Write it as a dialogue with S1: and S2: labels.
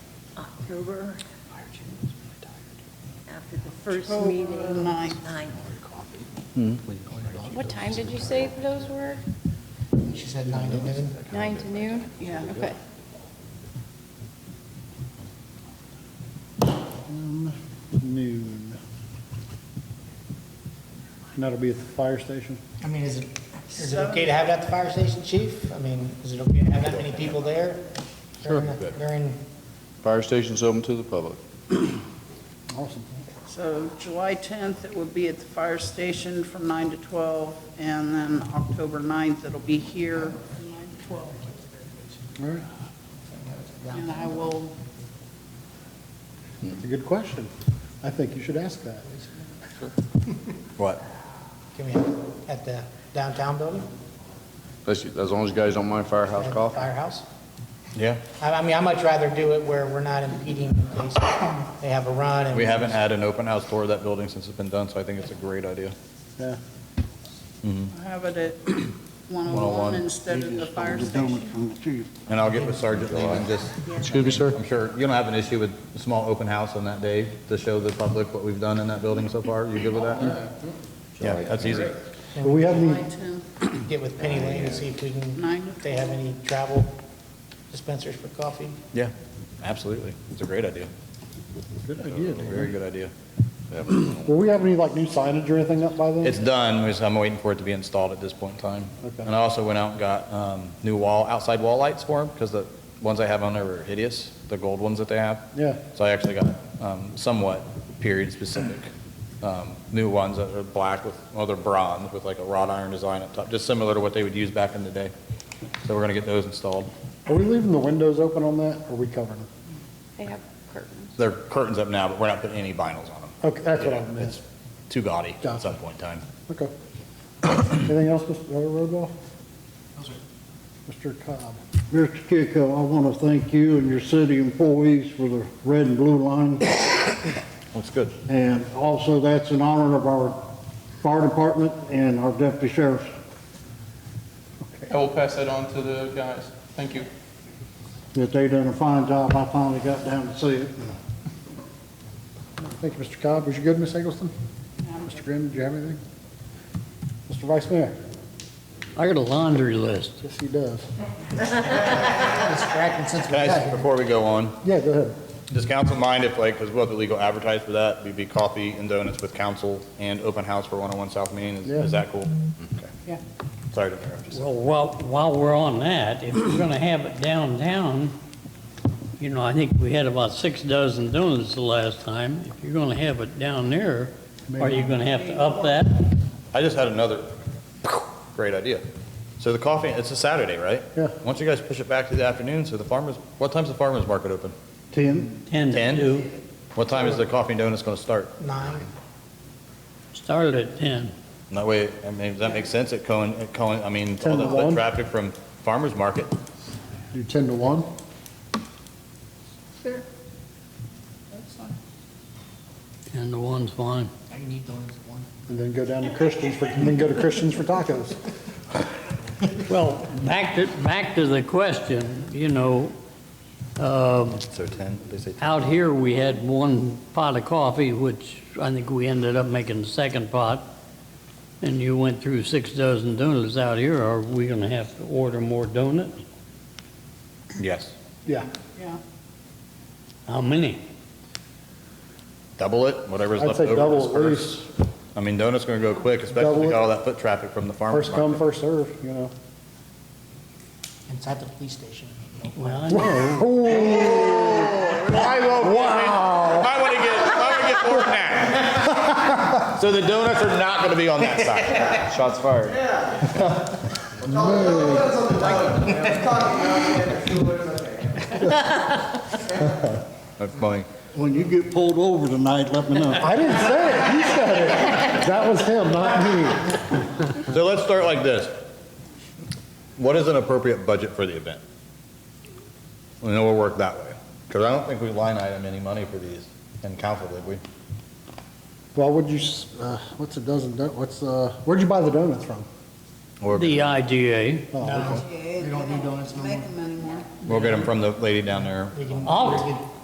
S1: October, after the first
S2: October
S1: meeting.
S2: ninth.
S1: Ninth.
S3: What time did you say those were?
S4: She said nine to noon.
S3: Nine to noon?
S2: Yeah.
S3: Okay.
S5: Um, Noon. And that'll be at the fire station?
S4: I mean, is it, is it okay to have it at the fire station, chief? I mean, is it okay to have that many people there? Sure. During,
S6: Fire station's open to the public.
S5: Awesome.
S2: So July 10th, it would be at the fire station from 9 to 12, and then October 9th, it'll be here.
S5: All right,
S2: And I will,
S5: that's a good question. I think you should ask that.
S6: What?
S4: can we have it at the downtown building?
S6: As, as long as you guys don't mind firehouse
S4: At the
S6: coffee.
S4: Firehouse?
S7: Yeah,
S4: I, I mean, I'd much rather do it where we're not impeding in case they have a run and.
S7: we haven't had an open house tour of that building since it's been done, so I think it's a great idea.
S5: Yeah.
S2: have it at 101
S7: 101.
S2: instead of the fire station.
S7: And I'll get with Sergeant Lee and just,
S6: Excuse me, sir?
S7: I'm sure, you don't have an issue with a small open house on that day to show the public what we've done in that building so far? You good with that? Yeah, that's easy.
S5: But we have
S2: July
S5: any,
S2: 10th,
S4: Get with Penny Lane and see if we can,
S2: Nine.
S4: if they have any travel dispensers for coffee.
S7: Yeah, absolutely. It's a great idea.
S5: good idea.
S7: Very good idea.
S5: Will we have any, like, new signage or anything up by then?
S7: It's done, we just- I'm waiting for it to be installed at this point in time.
S5: Okay.
S7: And I also went out and got um, new wall, outside wall lights for them, because the ones I have on there are hideous, the gold ones that they have.
S5: Yeah.
S7: So I actually got um, somewhat period-specific um, new ones that are black with, well, they're bronze with like a wrought iron design up top, just similar to what they would use back in the day. So we're going to get those installed.
S5: Are we leaving the windows open on that, or are we covering them?
S3: They have curtains.
S7: They're curtains up now, but we're not putting any vinyls on them.
S5: Okay, that's what I
S7: Yeah,
S5: meant.
S7: It's too gaudy
S5: Gotcha.
S7: at some point in time.
S5: Okay. Anything else, Mr. Rogoff? No, sir. Mr. Cobb?
S8: Mr. Kiko, I want to thank you and your city employees for the red and blue line.
S7: Looks good.
S8: And also, that's in honor of our fire department and our deputy sheriffs.
S9: I will pass that on to the guys. Thank you.
S8: That they done a fine job. I finally got down to see it.
S5: Thank you, Mr. Cobb. Was you good, Ms. Eggleston? Mr. Grimm, did you have anything? Mr. Vice Mayor?
S8: I got a laundry list.
S5: Yes, he does.
S4: Distracting since we got
S7: Guys,
S4: here.
S7: before we go on,
S5: Yeah, go ahead.
S7: Does council mind if, like, because we'll have to legal advertise for that, it'd be coffee and donuts with council and open house for 101 South Main, is,
S5: Yeah. Mm-hmm.
S7: is that cool? Okay.
S2: Yeah.
S7: Sorry to interrupt you.
S10: Well, while, while we're on that, if we're gonna have it downtown, you know, I think we had about six dozen donuts the last time. If you're gonna have it down there, are you gonna have to up that?
S7: I just had another great idea. So the coffee, it's a Saturday, right?
S5: Yeah.
S7: Why don't you guys push it back to the afternoon, so the farmers, what time's the farmers market open?
S8: Ten,
S10: Ten to
S7: 10?
S10: two,
S7: What time is the coffee and donuts gonna start?
S4: Nine.
S10: started at ten.
S7: And that way, I mean, does that make sense at Cohen, at Cohen, I mean, all
S5: 10 to
S7: the- the
S5: 1?
S7: traffic from farmers market?
S5: Do 10 to 1?
S1: Sure.
S10: Ten to one's fine.
S4: I need the ones at one.
S5: And then go down to Christians for, and then go to Christians for tacos.
S10: Well, back to, back to the question, you know, um,
S7: So 10, they say 10.
S10: Out here, we had one pot of coffee, which I think we ended up making the second pot, and you went through six dozen donuts out here. Are we gonna have to order more donuts?
S7: Yes.
S5: Yeah.
S2: Yeah,
S10: How many?
S7: Double it, whatever's
S5: I'd
S7: left
S5: say
S7: over.
S5: double
S7: is
S5: at
S7: first.
S5: least.
S7: I mean, donuts gonna go quick, especially
S5: Double
S7: with
S5: it.
S7: all that foot traffic from the farmers
S5: First
S7: market.
S5: come, first serve. you know.
S4: Inside the police station.
S10: Well, I know,
S7: I won't. Wow. oh I want to get, I want to get more than that. So the donuts are not gonna be on that side. Shots fired. That's funny.
S8: When you get pulled over tonight, let me know.
S5: I didn't say it, you said it. That was him, not me.
S7: So let's start like this. What is an appropriate budget for the event? And then we'll work that way. Because I don't think we line item any money for these in council, did we?
S5: Well, would you, s- uh, what's a dozen, don- what's, uh, where'd you buy the donuts from?
S7: Or-
S10: the IGA.
S5: Oh, okay.
S4: We don't need donuts no more.
S2: make them anymore.
S7: We'll get them from the lady down there.
S4: We can-
S10: All-
S4: we can-